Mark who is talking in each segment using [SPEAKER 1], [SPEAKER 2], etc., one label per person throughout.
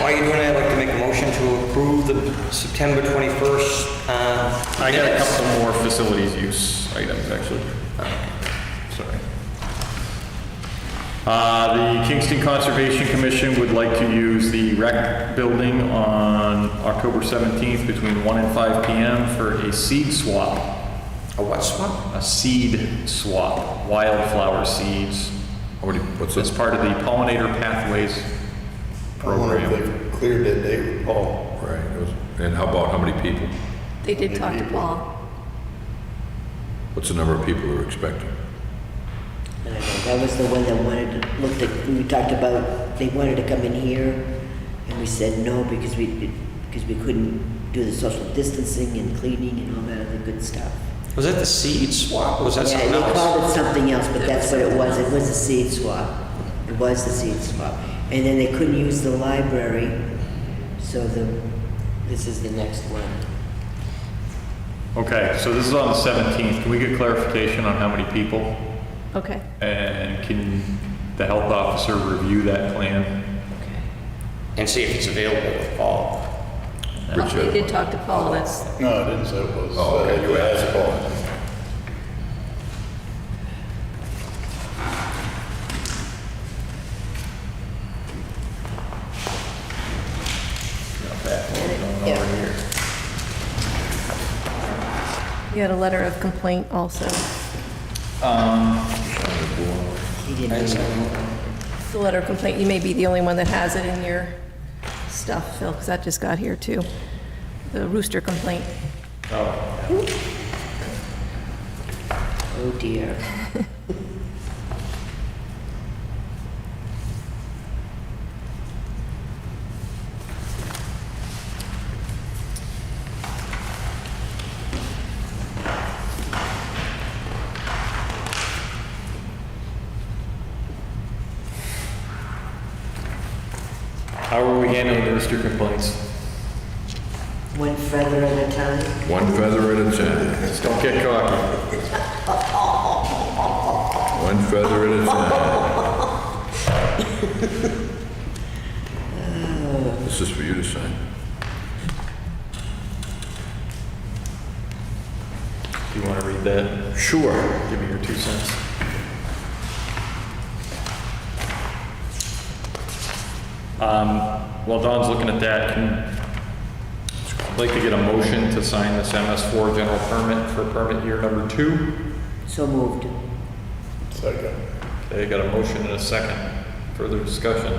[SPEAKER 1] While you're doing that, I'd like to make a motion to approve the September 21st. uh,
[SPEAKER 2] I got a
[SPEAKER 1] minutes.
[SPEAKER 2] couple more facilities use items, actually. Sorry. Uh, The Kingston Conservation Commission would like to use the rec building on October 17th between 1 and 5 PM for a seed swap.
[SPEAKER 1] A what swap?
[SPEAKER 2] A seed swap, wildflower seeds.
[SPEAKER 3] What do you- What's
[SPEAKER 2] As
[SPEAKER 3] this?
[SPEAKER 2] part of the pollinator pathways program.
[SPEAKER 4] They've cleared that they, oh,
[SPEAKER 3] Right, it was- and how about how many people?
[SPEAKER 5] They did talk to Paul.
[SPEAKER 3] What's the number of people we are expecting?
[SPEAKER 6] I don't know, that was the one that wanted to, looked at, we talked about, they wanted to come in here, and we said no because we, because we couldn't do the social distancing and cleaning and all that other good stuff.
[SPEAKER 1] Was that the seed swap? or Was that
[SPEAKER 6] Yeah,
[SPEAKER 1] something
[SPEAKER 6] They
[SPEAKER 1] else?
[SPEAKER 6] called it something else, but that's what it was, it was a seed swap. It was the seed swap. And then they couldn't use the library, so the, this is the next one.
[SPEAKER 2] Okay, so this is on the 17th. Can we get clarification on how many people?
[SPEAKER 5] Okay.
[SPEAKER 2] And can the health officer review that plan?
[SPEAKER 1] And see if it's available with Paul.
[SPEAKER 5] Well, They did talk to Paul, that's,
[SPEAKER 4] no, I didn't say it was.
[SPEAKER 3] Oh, okay, you
[SPEAKER 4] uh,
[SPEAKER 3] asked.
[SPEAKER 4] asphalt.
[SPEAKER 6] Yeah.
[SPEAKER 5] you had a letter of complaint also.
[SPEAKER 6] He didn't do it.
[SPEAKER 5] The letter of complaint, you may be the only one that has it in your stuff, Phil, because that just got here too. The rooster complaint.
[SPEAKER 6] Oh dear.
[SPEAKER 2] How are we handling the rooster complaints?
[SPEAKER 6] One feather at a time.
[SPEAKER 3] One feather at a time.
[SPEAKER 2] Just don't get cocky.
[SPEAKER 3] One feather at a time. This is for you to sign.
[SPEAKER 2] Do you want to read that?
[SPEAKER 3] Sure.
[SPEAKER 2] Give me your two cents. Um, While Don's looking at that, can, I'd like to get a motion to sign this MS4 general permit for permit year number two.
[SPEAKER 6] So moved.
[SPEAKER 4] Second.
[SPEAKER 2] Okay, got a motion and a second. Further discussion?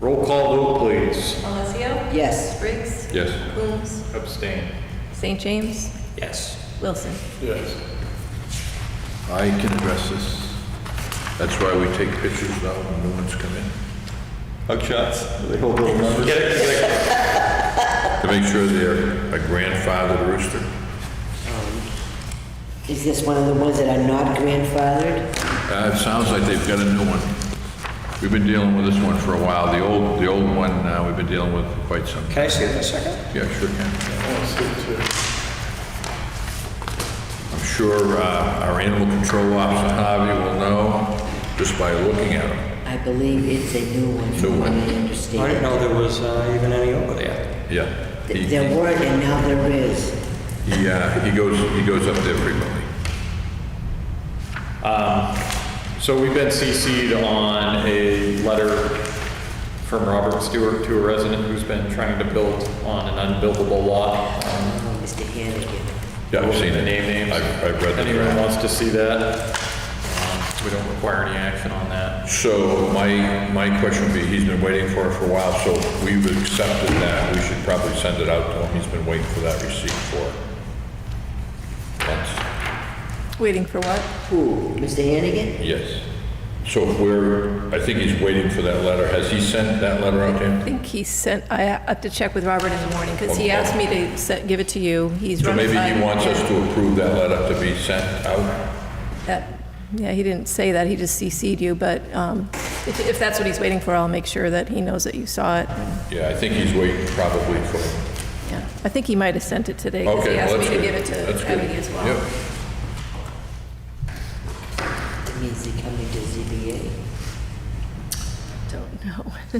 [SPEAKER 2] Roll call vote, please.
[SPEAKER 5] Alessio?
[SPEAKER 6] Yes.
[SPEAKER 5] Briggs?
[SPEAKER 3] Yes.
[SPEAKER 5] Coombs?
[SPEAKER 2] Abstain.
[SPEAKER 5] St. James?
[SPEAKER 1] Yes.
[SPEAKER 5] Wilson?
[SPEAKER 4] Yes.
[SPEAKER 3] I can address this. That's why we take pictures now when new ones come in,
[SPEAKER 2] Hug shots. Do they hold little numbers?
[SPEAKER 3] to make sure they're a grandfathered rooster.
[SPEAKER 6] Is this one of the ones that are not grandfathered?
[SPEAKER 3] Uh, it sounds like they've got a new one. We've been dealing with this one for a while. The old, the old one, uh, we've been dealing with for quite some,
[SPEAKER 1] Can I see it in a second?
[SPEAKER 3] yeah, sure can.
[SPEAKER 4] One, six, two.
[SPEAKER 3] I'm sure, uh, our animal control officer, Harvey, will know just by looking at them.
[SPEAKER 6] I believe it's a new one,
[SPEAKER 3] New
[SPEAKER 6] from what
[SPEAKER 3] one.
[SPEAKER 6] I
[SPEAKER 1] I didn't
[SPEAKER 6] understand.
[SPEAKER 1] know there was uh, even any over there.
[SPEAKER 3] Yeah. He-
[SPEAKER 6] Th- There weren't, and now there is.
[SPEAKER 3] He, uh, he goes, he goes up there frequently.
[SPEAKER 2] So we've been CC'd on a letter from Robert Stewart to a resident who's been trying to build on an unbuildable lot. Um,
[SPEAKER 6] Oh, Mr. Hannigan.
[SPEAKER 3] Yeah, I've
[SPEAKER 2] we'll
[SPEAKER 3] seen
[SPEAKER 2] the
[SPEAKER 3] it.
[SPEAKER 2] Name names.
[SPEAKER 3] I've, I've read the
[SPEAKER 2] If Anyone wants to see that? um, We don't require any action on that.
[SPEAKER 3] So my, my question would be, he's been waiting for it for a while, so we've accepted that, we should probably send it out to him, he's been waiting for that receipt for months.
[SPEAKER 5] Waiting for what?
[SPEAKER 6] Who? Mr. Hannigan?
[SPEAKER 3] Yes. So if we're, I think he's waiting for that letter, has he sent that letter out to
[SPEAKER 5] I
[SPEAKER 3] him?
[SPEAKER 5] think he sent, I have to check with Robert in the morning, because he
[SPEAKER 3] Okay.
[SPEAKER 5] asked me to set, give it to you. He's
[SPEAKER 3] So
[SPEAKER 5] running
[SPEAKER 3] maybe
[SPEAKER 5] by-
[SPEAKER 3] he wants us to approve that letter to be sent out?
[SPEAKER 5] That- Yeah, he didn't say that, he just CC'd you, but um, if if that's what he's waiting for, I'll make sure that he knows that you saw it.
[SPEAKER 3] Yeah, I think he's waiting probably for,
[SPEAKER 5] Yeah, I think he might have sent it today, because he
[SPEAKER 3] okay, well,
[SPEAKER 5] asked
[SPEAKER 3] that's
[SPEAKER 5] me to
[SPEAKER 3] good.
[SPEAKER 5] give it
[SPEAKER 3] That's
[SPEAKER 5] to
[SPEAKER 3] good.
[SPEAKER 5] Ebony as well.
[SPEAKER 3] Yep.
[SPEAKER 6] That means they're coming to ZBA.
[SPEAKER 5] Don't know.